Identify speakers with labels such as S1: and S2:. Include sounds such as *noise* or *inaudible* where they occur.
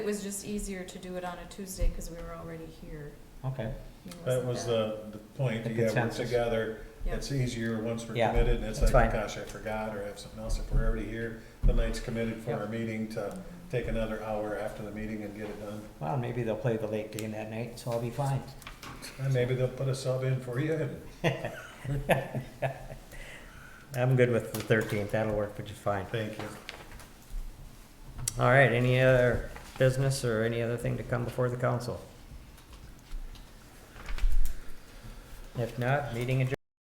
S1: It was just easier to do it on a Tuesday because we were already here.
S2: Okay,
S1: I mean, it
S3: That
S1: wasn't
S3: was
S1: that-
S3: the, the point,
S2: The
S3: yeah, we're
S2: consensus.
S3: together,
S1: Yeah.
S3: it's easier once we're
S2: Yeah,
S3: committed, and it's
S2: that's
S3: like,
S2: fine.
S3: gosh, I forgot, or I have something else, if we're already here, the night's committed for
S2: Yeah.
S3: our meeting to
S1: Mm-hmm.
S3: take another hour after the meeting and get it done.
S2: well, maybe they'll play the late game that night, so I'll be fine. *laughs*
S3: And maybe they'll put a sub in for you, and
S2: I'm good with the thirteenth, that'll work just fine.
S3: thank you.
S2: All right, any other business or any other thing to come before the council? If not, meeting adjourned.